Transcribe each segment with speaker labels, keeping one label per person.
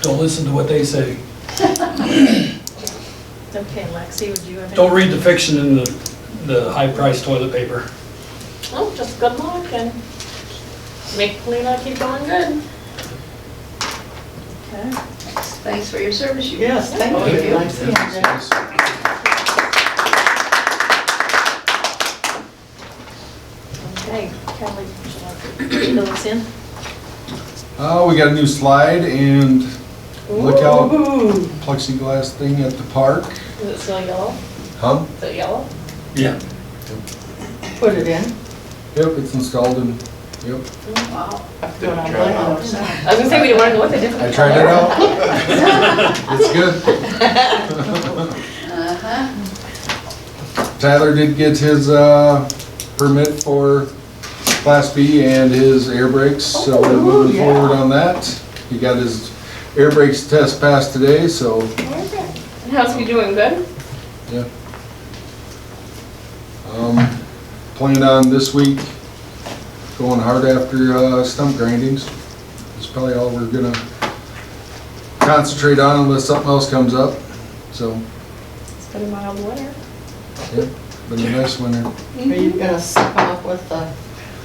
Speaker 1: Don't listen to what they say.
Speaker 2: Okay, Lexi, would you have? any-
Speaker 1: Don't read the fiction in the, the high-priced toilet paper.
Speaker 2: Oh, just good luck and make Polina keep going good. Okay.
Speaker 3: Thanks for your service. you-
Speaker 4: Yes, thank
Speaker 1: Okay.
Speaker 4: you.
Speaker 2: Okay, Kelly, would you like to fill us in?
Speaker 5: Uh, we got a new slide and look out
Speaker 4: Ooh,
Speaker 5: plexiglass thing at the park.
Speaker 2: Is it still yellow?
Speaker 5: Huh?
Speaker 2: Is it yellow?
Speaker 1: Yeah.
Speaker 4: put it in.
Speaker 5: Yep, it's installed and, yep,
Speaker 3: Wow.
Speaker 4: Going on my house.
Speaker 2: I was gonna say, we didn't wanna go with a
Speaker 5: I
Speaker 2: different color.
Speaker 5: tried it out. It's good.
Speaker 3: Uh-huh.
Speaker 5: Tyler did get his, uh, permit for class B and his air brakes, so we're
Speaker 4: Ooh,
Speaker 5: moving
Speaker 4: yeah.
Speaker 5: forward on that. He got his air brakes test passed today, so,
Speaker 2: Okay. And how's he doing, good?
Speaker 5: yeah. Um, planned on this week going hard after, uh, stump grindings. It's probably all we're gonna concentrate on unless something else comes up, so,
Speaker 2: It's been a mild winter.
Speaker 5: yeah, been a nice winter.
Speaker 4: Are you gonna step off with the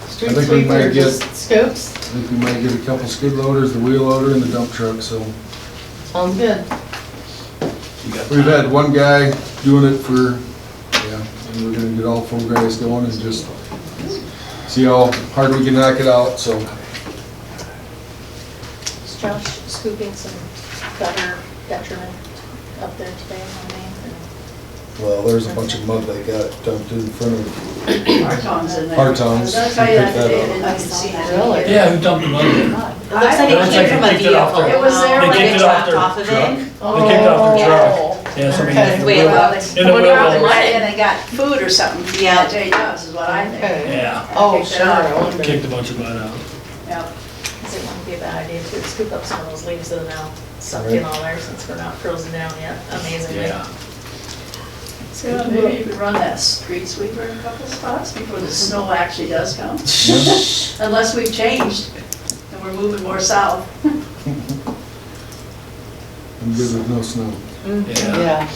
Speaker 4: street
Speaker 5: I think we
Speaker 4: sweeper,
Speaker 5: might get-
Speaker 4: just scoops?
Speaker 5: I think we might get a couple skid loaders, the wheel loader and the dump truck, so.
Speaker 4: Sounds good.
Speaker 5: We've had one guy doing it for, yeah, and we're gonna get all four guys going and just see how hard we can knock it out, so.
Speaker 2: Is Josh scooping some gutter detriment up there today on Main?
Speaker 5: Well, there's a bunch of mud they got dumped in front of.
Speaker 3: Hartong's in there.
Speaker 5: Hartong's.
Speaker 3: I'll tell you that today, and
Speaker 5: Pick
Speaker 3: you can see it.
Speaker 4: Really?
Speaker 1: Yeah, who dumped the money?
Speaker 2: God.
Speaker 3: It looks like
Speaker 1: It looks like they kicked it off their-
Speaker 3: It was there
Speaker 1: They
Speaker 3: when they
Speaker 1: kicked it off their
Speaker 3: dropped off of it.
Speaker 1: They kicked off their truck. Yeah, somebody
Speaker 4: Oh. Okay.
Speaker 1: in the
Speaker 3: Wait,
Speaker 1: wheel-
Speaker 3: well,
Speaker 1: In the
Speaker 3: they,
Speaker 1: wheel well.
Speaker 3: and they got food or something, yeah, Jay Dobbs is what I think.
Speaker 4: Okay.
Speaker 1: Yeah,
Speaker 4: Oh,
Speaker 3: Picked it
Speaker 4: sure,
Speaker 3: up.
Speaker 4: I wonder.
Speaker 1: kicked a bunch of mud out.
Speaker 3: Yep.
Speaker 2: Because it wouldn't be a bad idea to scoop up some of those leaves that are now sucked in all there since we're not frozen down yet, amazingly.
Speaker 1: Yeah.
Speaker 3: So maybe you could run that street sweeper in a couple spots before the snow actually does come. Unless we've changed and we're moving more south.
Speaker 5: I'm good with no snow.
Speaker 1: Yeah.
Speaker 4: Yeah,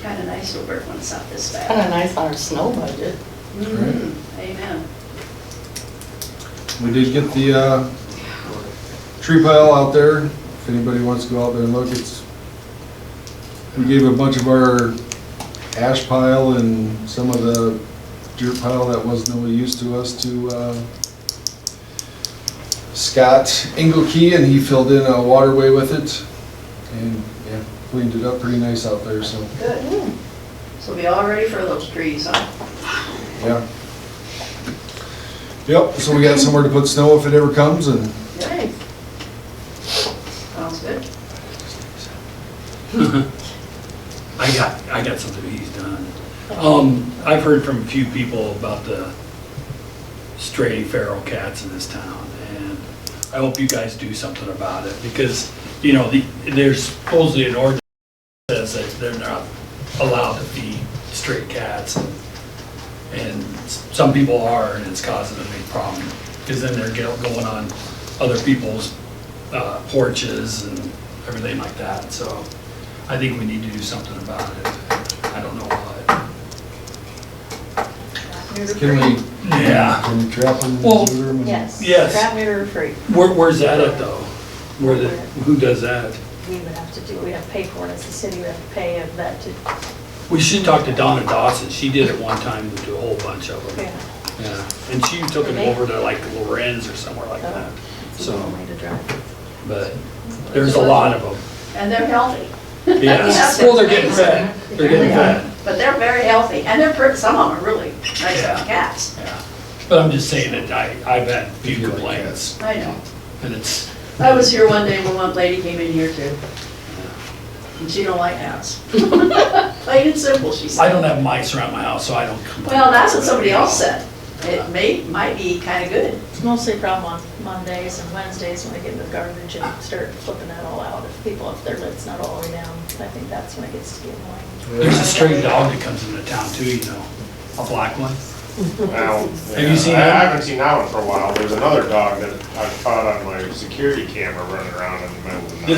Speaker 3: Kind of nice to work when it's not this bad.
Speaker 4: kinda nice on our snow budget.
Speaker 5: Right.
Speaker 3: Amen.
Speaker 5: We did get the, uh, tree pile out there, if anybody wants to go out there and look, it's, we gave a bunch of our ash pile and some of the dirt pile that wasn't really used to us to, uh, Scott Engelke, and he filled in a waterway with it, and, yeah, cleaned it up pretty nice out there, so,
Speaker 3: Good. So be all ready for those trees, huh?
Speaker 5: yeah. Yep, so we got somewhere to put snow if it ever comes, and
Speaker 3: Yep. Sounds good.
Speaker 1: I got, I got something he's done. Um, I've heard from a few people about the stray feral cats in this town, and I hope you guys do something about it, because, you know, the, there's supposedly an ordinance that says that they're not allowed to feed stray cats, and- and s- some people are, and it's causing a big problem, because then they're go- going on other people's uh, porches and everything like that, so I think we need to do something about it. I don't know what.
Speaker 5: can we
Speaker 1: Yeah.
Speaker 5: Can you trap them?
Speaker 1: Well-
Speaker 5: neuter them, and-
Speaker 2: Yes.
Speaker 1: Yes.
Speaker 2: Crab mirror free.
Speaker 1: Where, where's that at though? Where the, who does that?
Speaker 2: We would have to do, we have to pay for it as a city, we have to pay a vet to,
Speaker 1: We should talk to Donna Dawson. She did it one time to a whole bunch of them.
Speaker 2: yeah,
Speaker 1: Yeah. And she took them over to like Lorenz or somewhere like that.
Speaker 2: Oh. it's a long
Speaker 1: So,
Speaker 2: way to drive.
Speaker 1: but there's a lot of them.
Speaker 3: And they're healthy.
Speaker 1: Yes. Well, they're getting fed. They're getting fed.
Speaker 3: But they're very healthy and they're, pretty- some of them are really nice
Speaker 1: Yeah.
Speaker 3: cats.
Speaker 1: Yeah. But I'm just saying that I, I've had a few complaints
Speaker 3: I know.
Speaker 1: and it's,
Speaker 3: I was here one day when one lady came in here too. And she don't like cats. Plain and simple, she
Speaker 1: I
Speaker 3: said.
Speaker 1: don't have mice around my house, so I don't complain.
Speaker 3: Well, that's what somebody else said. It may, might be kinda good.
Speaker 2: It's mostly a problem on Mondays and Wednesdays when I get the garbage and start flipping that all out. If people, if their lid's not all the way down, I think that's when it gets to get annoying.
Speaker 1: There's a stray dog that comes into town too, you know, a black one.
Speaker 6: Now,
Speaker 1: Have you seen
Speaker 6: I
Speaker 1: that?
Speaker 6: haven't seen that one for a while. There's another dog that I caught on my security camera running around in the middle of the night.